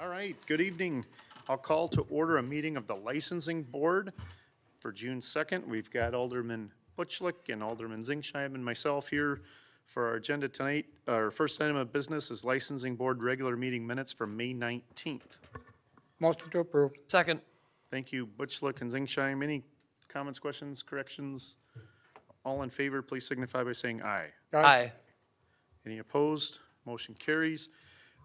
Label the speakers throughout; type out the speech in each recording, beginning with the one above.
Speaker 1: All right, good evening. I'll call to order a meeting of the Licensing Board for June 2nd. We've got Alderman Butchlick and Alderman Zingsheim and myself here for our agenda tonight. Our first item of business is Licensing Board Regular Meeting Minutes for May 19th.
Speaker 2: Motion to approve.
Speaker 3: Second.
Speaker 1: Thank you, Butchlick and Zingsheim. Any comments, questions, corrections? All in favor, please signify by saying aye.
Speaker 3: Aye.
Speaker 1: Any opposed? Motion carries.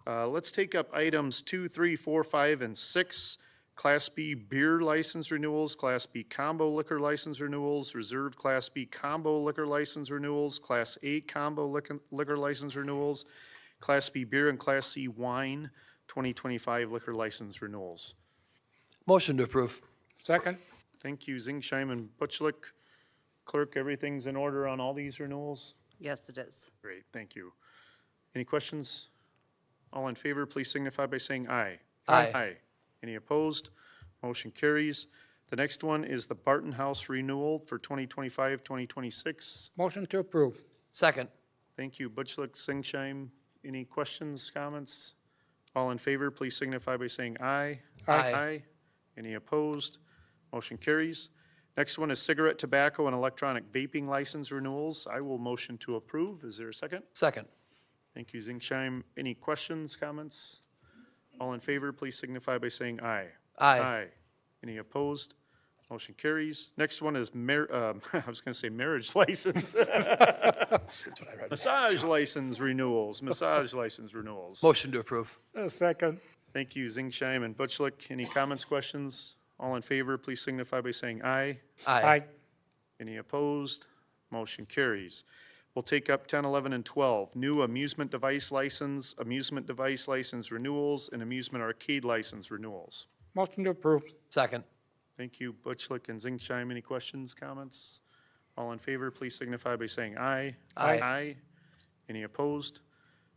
Speaker 1: Uh, Let's take up items two, three, four, five, and 6. Class B beer license renewals, Class B combo liquor license renewals, Reserve Class B combo liquor license renewals, Class A combo liquor liquor license renewals, Class B beer and Class C wine 2025 liquor license renewals.
Speaker 3: Motion to approve.
Speaker 2: Second.
Speaker 1: Thank you, Zingsheim and Butchlick. Clerk, everything's in order on all these renewals?
Speaker 4: Yes, it is.
Speaker 1: Great, thank you. Any questions? All in favor, please signify by saying aye.
Speaker 3: Aye.
Speaker 1: Aye. Any opposed? Motion carries. The next one is the Barton House renewal for 2025, 2026.
Speaker 2: Motion to approve.
Speaker 3: Second.
Speaker 1: Thank you, Butchlick, Singsheim. Any questions, comments? All in favor, please signify by saying aye.
Speaker 3: Aye.
Speaker 1: Aye. Any opposed? Motion carries. Next one is cigarette, tobacco, and electronic vaping license renewals. I will motion to approve. Is there a second?
Speaker 3: Second.
Speaker 1: Thank you, Zingsheim. Any questions, comments? All in favor, please signify by saying aye.
Speaker 3: Aye.
Speaker 1: Any opposed? Motion carries. Next one is mar, um, I was gonna say marriage license. Massage license renewals, massage license renewals.
Speaker 3: Motion to approve.
Speaker 2: Uh, Second.
Speaker 1: Thank you, Zingsheim and Butchlick. Any comments, questions? All in favor, please signify by saying aye.
Speaker 3: Aye.
Speaker 1: Any opposed? Motion carries. We'll take up 10, 11, and 12, new amusement device license, amusement device license renewals, and amusement arcade license renewals.
Speaker 2: Motion to approve.
Speaker 3: Second.
Speaker 1: Thank you, Butchlick and Zingsheim. Any questions, comments? All in favor, please signify by saying aye.
Speaker 3: Aye.
Speaker 1: Aye. Any opposed?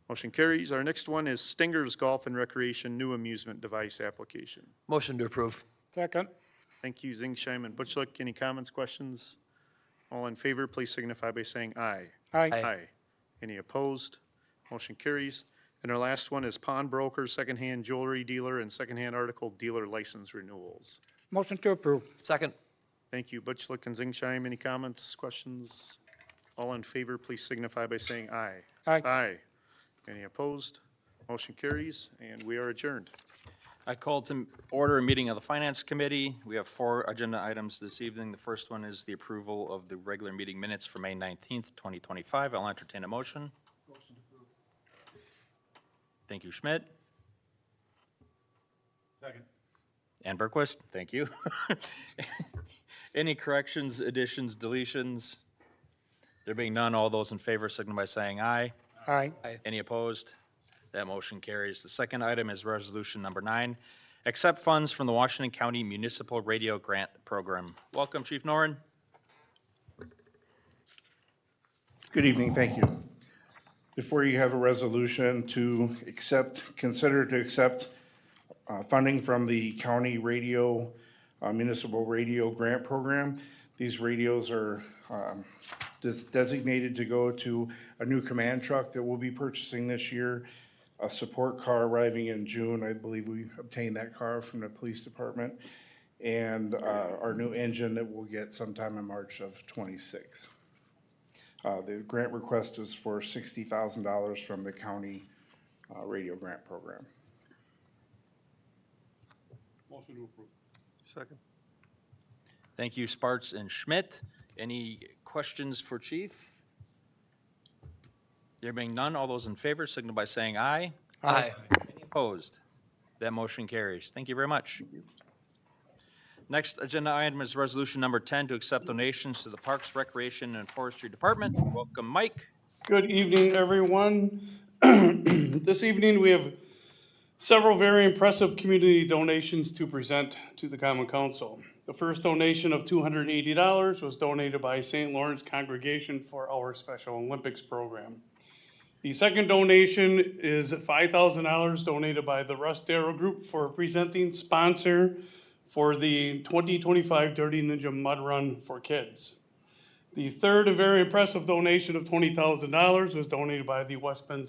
Speaker 1: Motion carries. Our next one is Stinger's Golf and Recreation New Amusement Device Application.
Speaker 3: Motion to approve.
Speaker 2: Second.
Speaker 1: Thank you, Zingsheim and Butchlick. Any comments, questions? All in favor, please signify by saying aye.
Speaker 2: Aye.
Speaker 1: Aye. Any opposed? Motion carries. And our last one is pawnbroker, secondhand jewelry dealer, and secondhand article dealer license renewals.
Speaker 2: Motion to approve.
Speaker 3: Second.
Speaker 1: Thank you, Butchlick and Zingsheim. Any comments, questions? All in favor, please signify by saying aye.
Speaker 2: Aye.
Speaker 1: Aye. Any opposed? Motion carries, and we are adjourned.
Speaker 5: I called to order a meeting of the Finance Committee. We have four agenda items this evening. The first one is the approval of the regular meeting minutes for May 19th, 2025. I'll entertain a motion. Thank you, Schmidt. Second. And Berquist, thank you. Any corrections, additions, deletions? There being none, all those in favor signify by saying aye.
Speaker 2: Aye.
Speaker 5: Any opposed? That motion carries. The second item is resolution number nine, accept funds from the Washington County Municipal Radio Grant Program. Welcome, Chief Noren.
Speaker 6: Good evening, thank you. Before you have a resolution to accept, consider to accept uh, funding from the county radio, uh, municipal radio grant program. These radios are um, des- designated to go to a new command truck that we'll be purchasing this year, a support car arriving in June. I believe we obtained that car from the police department, and uh, our new engine that we'll get sometime in March of '26. Uh, The grant request is for sixty thousand dollars from the county uh, radio grant program.
Speaker 5: Thank you, Sparts and Schmidt. Any questions for Chief? There being none, all those in favor signal by saying aye.
Speaker 3: Aye.
Speaker 5: Any opposed? That motion carries. Thank you very much. Next agenda item is resolution number 10 to accept donations to the Parks, Recreation, and Forestry Department. Welcome, Mike.
Speaker 7: Good evening, everyone. This evening, we have several very impressive community donations to present to the Common Council. The first donation of $280 was donated by St. Lawrence Congregation for our Special Olympics program. The second donation is $5,000 donated by the Rust Arrow Group for presenting sponsor for the 2025 Dirty Ninja Mud Run for Kids. The third and very impressive donation of twenty thousand dollars was donated by the West Bend